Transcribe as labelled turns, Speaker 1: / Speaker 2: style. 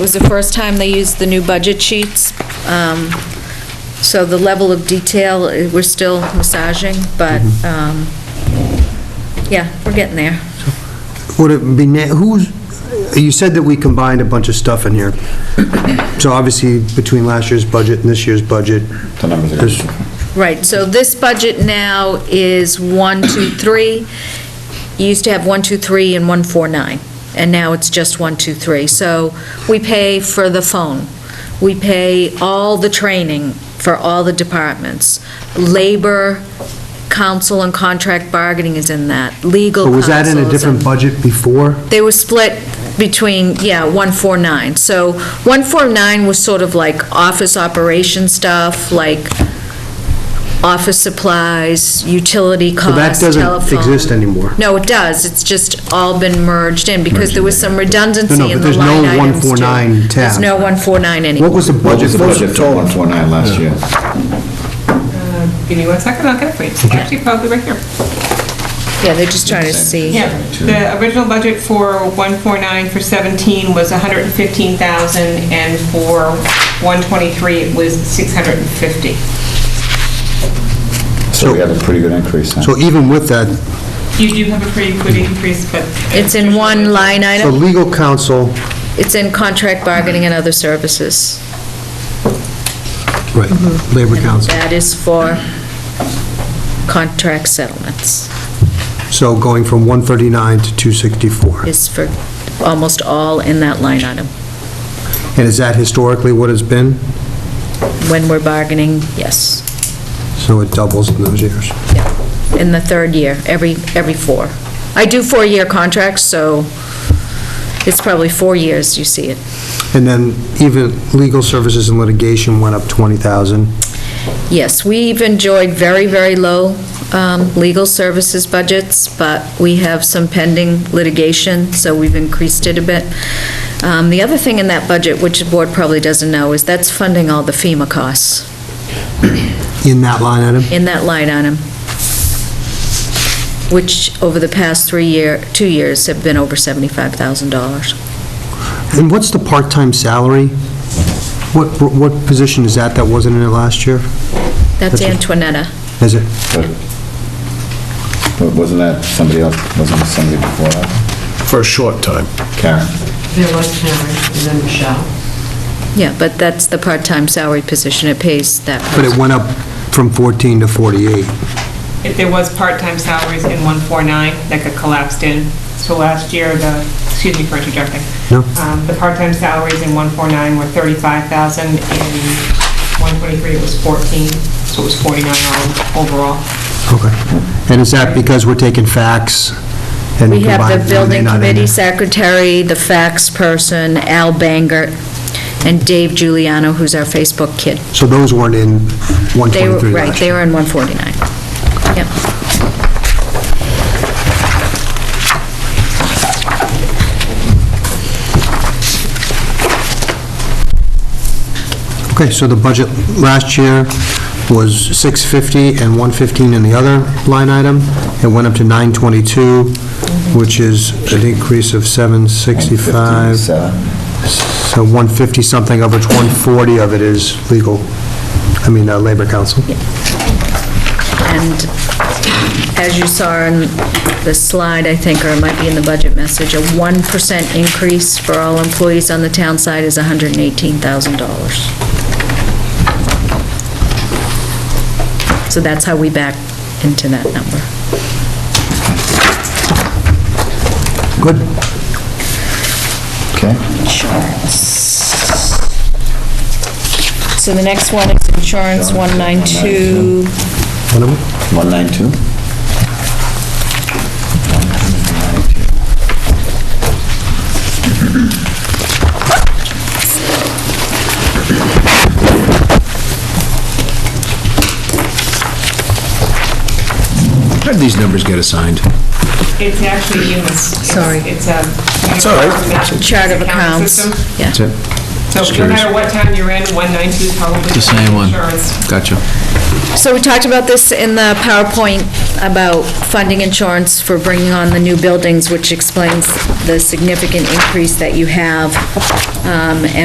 Speaker 1: It was the first time they used the new budget sheets, um, so the level of detail, eh, we're still massaging, but, um, yeah, we're getting there.
Speaker 2: Would it be, na- who's, you said that we combined a bunch of stuff in here. So obviously, between last year's budget and this year's budget,
Speaker 3: The numbers are
Speaker 2: there's,
Speaker 1: Right, so this budget now is one, two, three. You used to have one, two, three, and one, four, nine, and now it's just one, two, three. So we pay for the phone, we pay all the training for all the departments. Labor, council and contract bargaining is in that, legal
Speaker 2: but
Speaker 1: counsel.
Speaker 2: was that in a
Speaker 1: is
Speaker 2: different budget before?
Speaker 1: They were split between, yeah, 149. So 149 was sort of like office operation stuff, like office supplies, utility
Speaker 2: So that
Speaker 1: costs, telephone.
Speaker 2: doesn't exist anymore.
Speaker 1: No, it does. It's just all been merged in because there was some
Speaker 2: No,
Speaker 1: redundancy
Speaker 2: no,
Speaker 1: in
Speaker 2: but
Speaker 1: the
Speaker 2: there's no
Speaker 1: line items too.
Speaker 2: 149 tab.
Speaker 1: There's no 149 anymore.
Speaker 2: What was the budget?
Speaker 3: What was the budget for
Speaker 2: total?
Speaker 3: 149 last year?
Speaker 4: Uh, Give me one second, I'll get it for you. It's Actually, probably right here.
Speaker 1: Yeah, they're just trying to see.
Speaker 4: Yeah, the original budget for 149 for 17 was 115,000, and for 123, it was 650.
Speaker 3: So we had a pretty good increase then.
Speaker 2: So even with that,
Speaker 4: You do have a pretty good increase, but...
Speaker 1: It's in one line
Speaker 2: so
Speaker 1: item.
Speaker 2: legal counsel,
Speaker 1: It's in contract bargaining and other services.
Speaker 2: right,
Speaker 1: Mm-hmm.
Speaker 2: labor counsel.
Speaker 1: That is for contract settlements,
Speaker 2: So going from 139 to 264.
Speaker 1: is for almost all in that line item.
Speaker 2: And is that historically what it's been?
Speaker 1: When we're bargaining, yes,
Speaker 2: So it doubles in those years.
Speaker 1: in the third year, every, every four. I do four-year contracts, so it's probably four years you see it.
Speaker 2: And then even legal services and litigation went up 20,000.
Speaker 1: Yes, we've enjoyed very, very low um, legal services budgets, but we have some pending litigation, so we've increased it a bit. Um, The other thing in that budget, which the board probably doesn't know, is that's funding all the FEMA costs
Speaker 2: in that line item?
Speaker 1: in that line item, which over the past three year, two years have been over $75,000.
Speaker 2: And what's the part-time salary? What, what position is that that wasn't in it last year?
Speaker 1: That's
Speaker 2: That's it.
Speaker 1: Antoinetta.
Speaker 2: Is it?
Speaker 3: But- but Wasn't that somebody else, wasn't it somebody before that?
Speaker 5: for a short time.
Speaker 3: Karen?
Speaker 6: There was Karen, and then Michelle.
Speaker 1: Yeah, but that's the part-time salary position. It pays that
Speaker 2: But it
Speaker 1: person.
Speaker 2: went up from 14 to 48.
Speaker 4: If there was part-time salaries in 149 that got collapsed in, so last year, the, excuse me for interjecting.
Speaker 2: No.
Speaker 4: Um, The part-time salaries in 149 were 35,000, in 123 it was 14, so it was 49 all- overall.
Speaker 2: Okay. And is that because we're taking facts and
Speaker 1: We
Speaker 2: combining?
Speaker 1: have
Speaker 2: are
Speaker 1: the
Speaker 2: they
Speaker 1: building
Speaker 2: not in
Speaker 1: committee
Speaker 2: there?
Speaker 1: secretary, the fax person, Al Banger, and Dave Giuliano, who's our Facebook kid.
Speaker 2: So those weren't in
Speaker 1: They were,
Speaker 2: 123
Speaker 1: right,
Speaker 2: last
Speaker 1: they
Speaker 2: year?
Speaker 1: were in 149. Yep.
Speaker 2: Okay, so the budget last year was 650 and 115 in the other line item. It went up to 922, which is an increase of 765.
Speaker 3: 57?
Speaker 2: So 150 something of which 140 of it is legal, I mean, uh, Labor Council.
Speaker 1: And as you saw in the slide, I think, or it might be in the budget message, a 1% increase for all employees on the town side is $118,000. So that's how we back into that number.
Speaker 2: Good.
Speaker 3: Okay.
Speaker 1: Insurance. So the next one is insurance 192.
Speaker 2: One of them?
Speaker 3: 192?
Speaker 5: How did these numbers get assigned?
Speaker 4: It's actually in this.
Speaker 1: Sorry.
Speaker 4: It's um, a.
Speaker 5: all right.
Speaker 1: Chart of accounts.
Speaker 4: System.
Speaker 1: Yeah.
Speaker 5: That's it?
Speaker 4: So
Speaker 5: Just
Speaker 4: no
Speaker 5: curious.
Speaker 4: matter what time you're in, 192 is probably.
Speaker 5: The same one.
Speaker 4: Insurance.
Speaker 5: Gotcha.
Speaker 1: So we talked about this in the PowerPoint about funding insurance for bringing on the new buildings, which explains the significant increase that you have, um, and